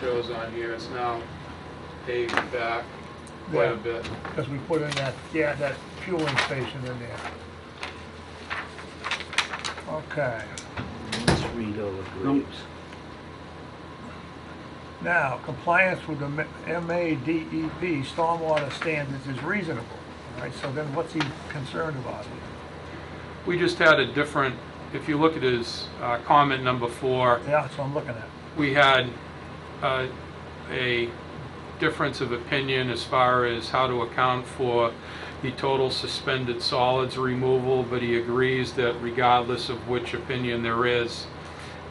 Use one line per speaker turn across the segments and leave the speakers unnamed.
shows on here, it's now paved back quite
Yeah.
a bit.
Because we put in that, yeah, that fueling station in there. Okay,
Let's read over Graves.
now, compliance with the M- MADEP stormwater standards is reasonable, all right? So then what's he concerned about here?
We just had a different, if you look at his uh, comment number four,
Yeah, that's what I'm looking at.
we had uh, a difference of opinion as far as how to account for the total suspended solids removal, but he agrees that regardless of which opinion there is,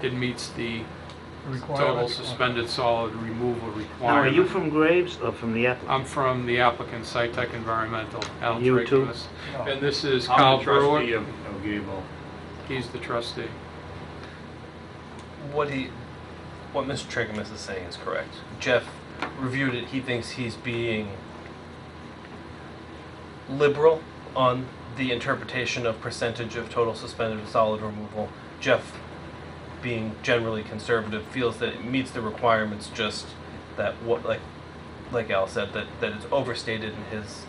it meets the total
Requirements.
suspended solid removal
Now, are you
requirement.
from Graves or from the applicant?
I'm from the applicant, SciTech Environmental, Al
You too?
Drakemus. And this is
Oh. I'm
Kyle
the trustee
Brewer.
of of Gable.
He's the trustee.
What he, what Mr. Tregamus is saying is correct. Jeff reviewed it. He thinks he's being liberal on the interpretation of percentage of total suspended solid removal. Jeff, being generally conservative, feels that it meets the requirements. Just that what like, like Al said, that that it's overstated in his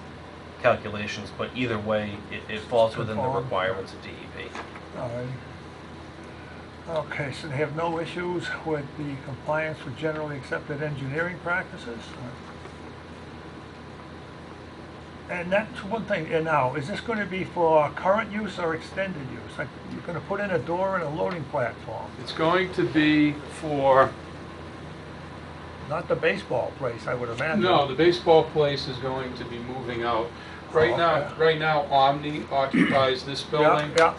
calculations. But either way, it, it falls within the
Conform.
requirements of E DEP.
All right. Okay, so they have no issues with the compliance with generally accepted engineering practices? And that's one thing, and now, is this gonna be for current use or extended use? Like, you're gonna put in a door and a loading platform,
It's going to be for
not the baseball place, I would imagine.
No, the baseball place is going to be moving out. Right now,
Okay.
right now Omni occupies this
Yeah,
building.
yeah,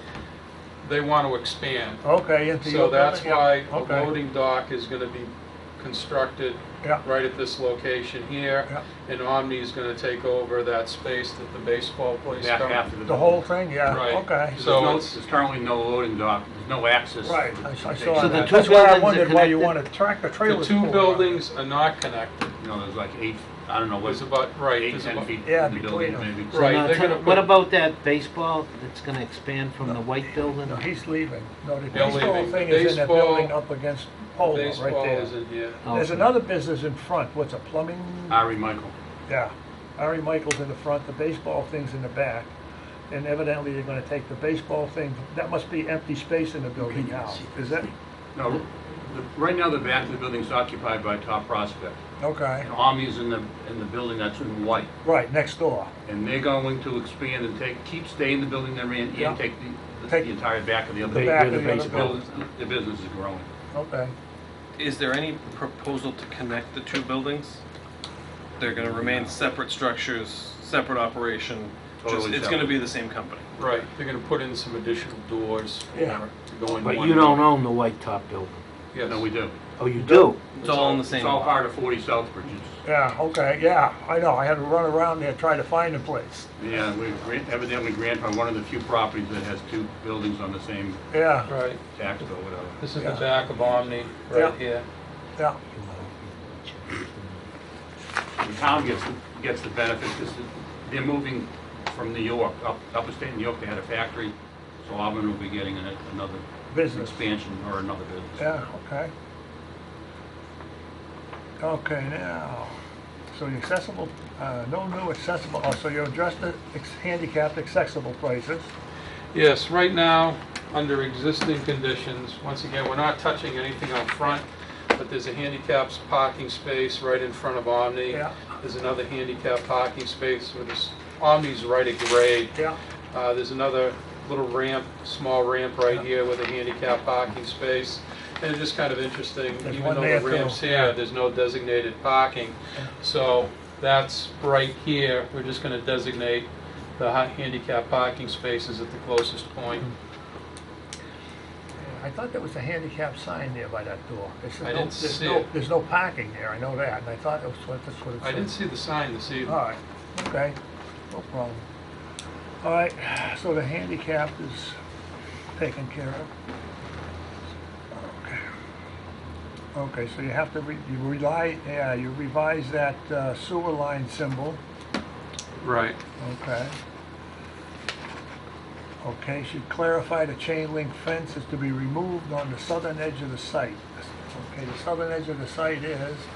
They want to expand.
Oh,
okay, into your
So that's
building,
why
yeah,
a
okay,
loading dock is going to be constructed
Yeah,
right at this location here.
yeah,
And Omni is going to take over that space that the baseball place
Back
comes.
after the.
the whole thing,
Right.
yeah, okay.
There's
So
no-
it's-
There's currently no loading dock, there's no access.
Right, I I
to take-
saw
So the
that,
two
that's why I
buildings are
wondered why you
connected?
wanted tractor
The
trailers.
two
pulled up.
buildings are not connected.
You know, there's like eight, I don't know,
There's
what's
about, right,
eight,
there's
ten
about,
feet
Yeah,
in the
between
building
them.
maybe.
So
Right,
now
they're
tell-
gonna put-
What about that baseball that's gonna expand from the white building?
No, he's leaving. No, the
They're
baseball
leaving.
thing is in that
Baseball-
building up against Polo, right
baseball is
there.
in here.
There's
Okay.
another business in front, what's a plumbing?
Ah.
Ari Michael.
Yeah, Ari Michael's in the front, the baseball thing's in the back. And evidently, they're gonna take the baseball thing, that must be empty space in the building now, is that?
No, the- right now the back of the building's occupied by Top Prospect.
Okay,
And Omni's in the, in the building that's in white.
right, next door.
And they're going to expand and take, keep staying in the building they're in
Yeah.
and take the,
Take
the entire back of the other.
The
Big-
back
big
of the other
baseball.
building,
building. The business is growing.
okay.
Is there any proposal to connect the two buildings? They're gonna remain separate structures, separate operation, just,
Totally
it's gonna be the same company.
Right, they're going to put in some additional doors for,
Yeah.
to go in one.
But you don't own the white top building.
Yes.
No, we do.
Oh, you do?
It's all in the same
It's all
lot.
part of 40 Southbridge. It's-
Yeah, okay, yeah, I know, I had to run around there trying to find a place,
Yeah, we grant- evidently grandfathered one of the few properties that has two buildings on the same
yeah,
Right,
tax bill, whatever.
this is the
Yeah.
back of Omni, right
Yeah.
here.
yeah,
The town gets, gets the benefit because they're moving from New York, up, upper state New York, they had a factory. So Auburn will be getting an- another
business.
expansion or another business.
Yeah, okay. Okay, now, so the accessible, uh, no new accessible, oh, so you addressed the ex- handicapped accessible places.
Yes, right now, under existing conditions, once again, we're not touching anything up front, but there's a handicapped parking space right in front of Omni.
Yeah.
There's another handicapped parking space, with this, Omni's right at grade.
Yeah.
Uh, There's another little ramp, small ramp right here with a handicap parking space. And it's just kind of interesting,
There's
even
one
though
there,
the
too.
ramp's here, there's no designated parking. So that's right here, we're just gonna designate the ha- handicap parking spaces at the closest point.
I thought there was a handicap sign there by that door. It said
I
no-
didn't
there's
see
no-
it.
There's no parking there, I know that, and I thought that's what, that's what it said.
I didn't see the sign this
All
evening.
right, okay, no problem. All right, so the handicapped is taken care of. Okay. Okay, so you have to, re- you rely, yeah, you revise that uh, sewer line symbol,
Right.
okay? Okay, should clarify the chain link fence is to be removed on the southern edge of the site. Okay, the southern edge of the site is